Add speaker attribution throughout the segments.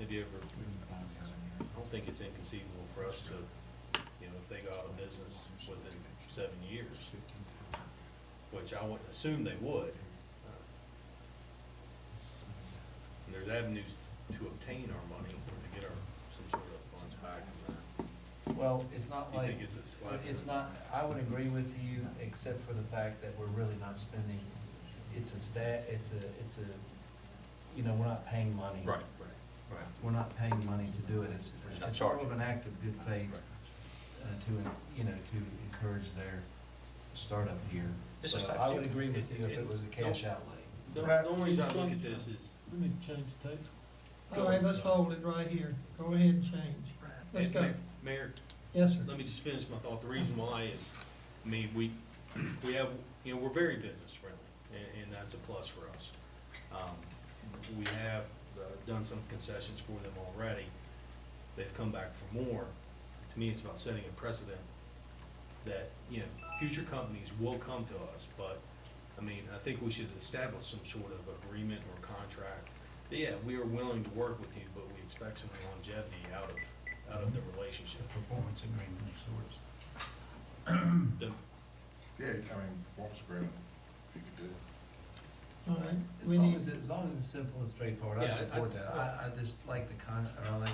Speaker 1: idea of, I don't think it's inconceivable for us to, you know, if they go out of business within seven years, which I would assume they would. And There's avenues to obtain our money or to get our, some sort of funds back from that.
Speaker 2: Well, it's not
Speaker 1: You
Speaker 2: like, uh,
Speaker 1: think it's a slap?
Speaker 2: it's not, I would agree with you, except for the fact that we're really not spending, it's a stat, it's a, it's a, you know, we're not paying money.
Speaker 1: Right, right, right.
Speaker 2: We're not paying money to do it, it's,
Speaker 1: We're not
Speaker 2: it's more of
Speaker 1: charging.
Speaker 2: an act of good faith uh, to, you know, to encourage their startup here.
Speaker 1: It's
Speaker 2: So
Speaker 1: just like
Speaker 2: I would
Speaker 1: doing-
Speaker 2: agree with you if
Speaker 1: it-
Speaker 2: it
Speaker 1: it-
Speaker 2: was a cash outlay.
Speaker 1: The
Speaker 3: Right.
Speaker 1: the only reason I look at this is,
Speaker 4: We need to change the tape.
Speaker 3: All right, let's hold it right here. Go ahead and change. Let's
Speaker 1: and
Speaker 3: go.
Speaker 1: Ma- Mayor,
Speaker 3: Yes, sir.
Speaker 1: let me just finish my thought. The reason why is, I mean, we, we have, you know, we're very business friendly, and, and that's a plus for us. Um, We have uh, done some concessions for them already. They've come back for more. To me, it's about setting a precedent that, you know, future companies will come to us, but, I mean, I think we should establish some sort of agreement or contract. That, Yeah, we are willing to work with you, but we expect some longevity out of, out of the relationship.
Speaker 2: Performance agreement of sorts.
Speaker 1: The-
Speaker 5: Yeah, I mean, performance agreement, you could do.
Speaker 3: All right,
Speaker 2: As
Speaker 3: we
Speaker 2: long
Speaker 3: need,
Speaker 2: as, it- as long as it's simple and straightforward, I
Speaker 1: Yeah, I-
Speaker 2: support
Speaker 1: I-
Speaker 2: that. I, I just like the con, or I like,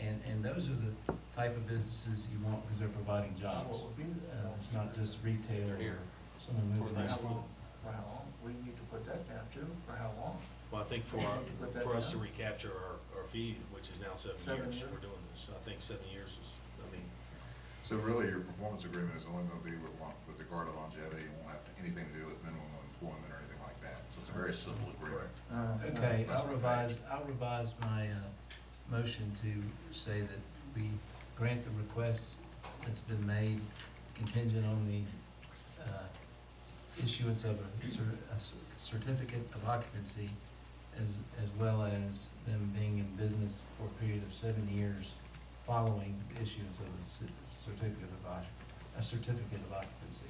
Speaker 2: and, and those are the type of businesses you want because they're providing jobs. Uh, It's not just retail
Speaker 1: They're
Speaker 2: or
Speaker 1: here.
Speaker 2: someone
Speaker 1: For
Speaker 2: moving.
Speaker 1: the-
Speaker 2: their-
Speaker 1: For the-
Speaker 6: For how long? We need to put that down too, for how long?
Speaker 1: Well, I think for, our- for us to recapture our, our fee, which is now seven
Speaker 6: Seven
Speaker 1: years
Speaker 6: years.
Speaker 1: for doing this, I think seven years is, I mean,
Speaker 5: So really, your performance agreement is only gonna be with one, with regard to longevity, it won't have anything to do with minimum employment or anything like that, so it's a very simple agreement.
Speaker 6: Uh,
Speaker 2: Okay,
Speaker 5: That's
Speaker 2: I'll
Speaker 5: okay.
Speaker 2: revise, I'll revise my, uh, motion to say that we grant the request that's been made contingent on the, uh, issuance of a cer- a cer- certificate of occupancy as, as well as them being in business for a period of seven years following the issuance of a cer- certificate of occup, a certificate of occupancy.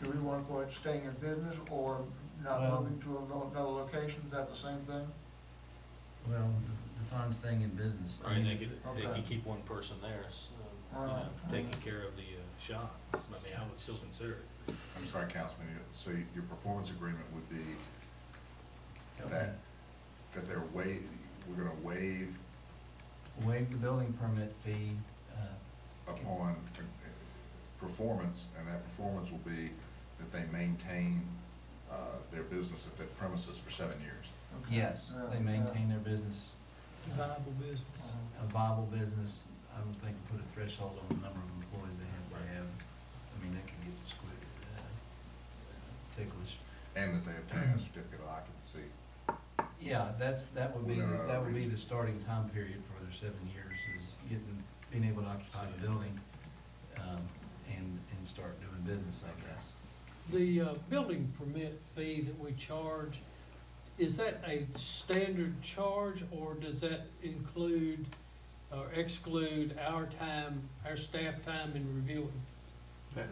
Speaker 6: Do we want to go ahead staying in business or not
Speaker 2: Well-
Speaker 6: moving to ano- another location? Is that the same thing?
Speaker 2: Well, defines staying in business.
Speaker 1: I mean, they could, they
Speaker 6: Okay.
Speaker 1: could keep one person there, so, you know,
Speaker 6: Alright,
Speaker 1: taking
Speaker 6: alright.
Speaker 1: care of the uh, shop. I mean, I would still consider it.
Speaker 5: I'm sorry, Councilman, you- so y- your performance agreement would be that, that they're wa, we're gonna waive
Speaker 2: Waive the building permit fee, uh,
Speaker 5: upon uh, performance, and that performance will be that they maintain, uh, their business at that premises for seven years.
Speaker 6: Okay. Uh,
Speaker 2: yes,
Speaker 6: Yeah,
Speaker 2: they maintain their business,
Speaker 3: uh,
Speaker 4: Viable business.
Speaker 6: yeah.
Speaker 2: a viable business. I don't think put a threshold on the number of employees they have to have. I mean, that could get squid, uh, ticklish.
Speaker 5: And that they obtain a certificate of occupancy.
Speaker 2: Yeah, that's, that would be, the- that would be the starting time period for their seven years is getting, being able to occupy the building, um, and, and start doing business, I guess.
Speaker 4: The uh, building permit fee that we charge, is that a standard charge or does that include or exclude our time, our staff time in reviewing?
Speaker 7: That,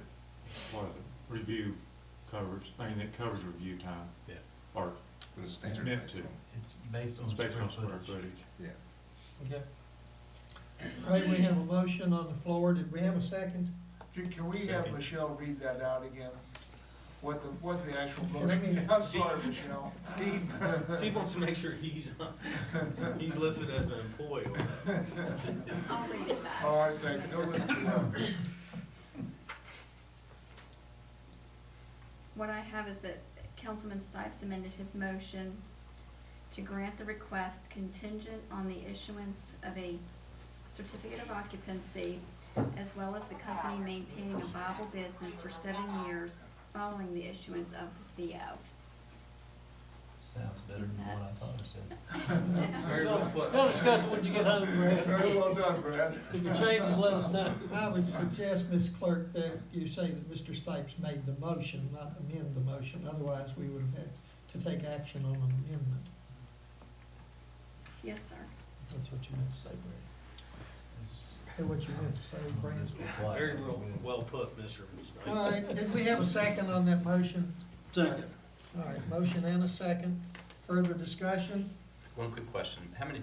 Speaker 7: what is it, review covers, I mean, it covers review time.
Speaker 1: Yeah.
Speaker 7: Or
Speaker 5: But it's standard.
Speaker 7: meant
Speaker 5: based
Speaker 7: to.
Speaker 5: on-
Speaker 2: Oh, It's based on
Speaker 7: it's
Speaker 2: square
Speaker 7: based on square
Speaker 2: footage.
Speaker 7: footage.
Speaker 5: Yeah.
Speaker 4: Okay.
Speaker 3: all right, we have a motion on the floor. Did we have a second?
Speaker 6: Can- Can we have
Speaker 1: Second.
Speaker 6: Michelle read that out again? What the, what the actual
Speaker 3: Let me-
Speaker 6: motion, I'm sorry, Michelle.
Speaker 1: Steve, Steve wants to make sure he's, uh, he's listed as an employee on that.
Speaker 8: I'll read it back.
Speaker 6: All right, thank you. Go listen to her.
Speaker 8: What I have is that Councilman Stipes amended his motion to grant the request contingent on the issuance of a certificate of occupancy as well as the company maintaining a viable business for seven years following the issuance of the
Speaker 2: Sounds better than what I thought I said.
Speaker 8: CO.
Speaker 1: Very well put.
Speaker 4: We'll discuss it when you get home,
Speaker 6: Very
Speaker 4: Brad.
Speaker 6: well done, Brad.
Speaker 4: If it changes, let us know.
Speaker 3: I would suggest, Ms. Clerk, that you say that Mr. Stipes made the motion, not amend the motion. Otherwise, we would have had to take action on an amendment.
Speaker 8: Yes, sir.
Speaker 3: That's what you meant to say, Brad. That's what you meant to say, Brad.
Speaker 1: Very well, well put, Mr. Snipes.
Speaker 3: All right, did we have a second on that motion?
Speaker 4: Second.
Speaker 3: All right, motion and a second. Further discussion?
Speaker 9: One quick question, how many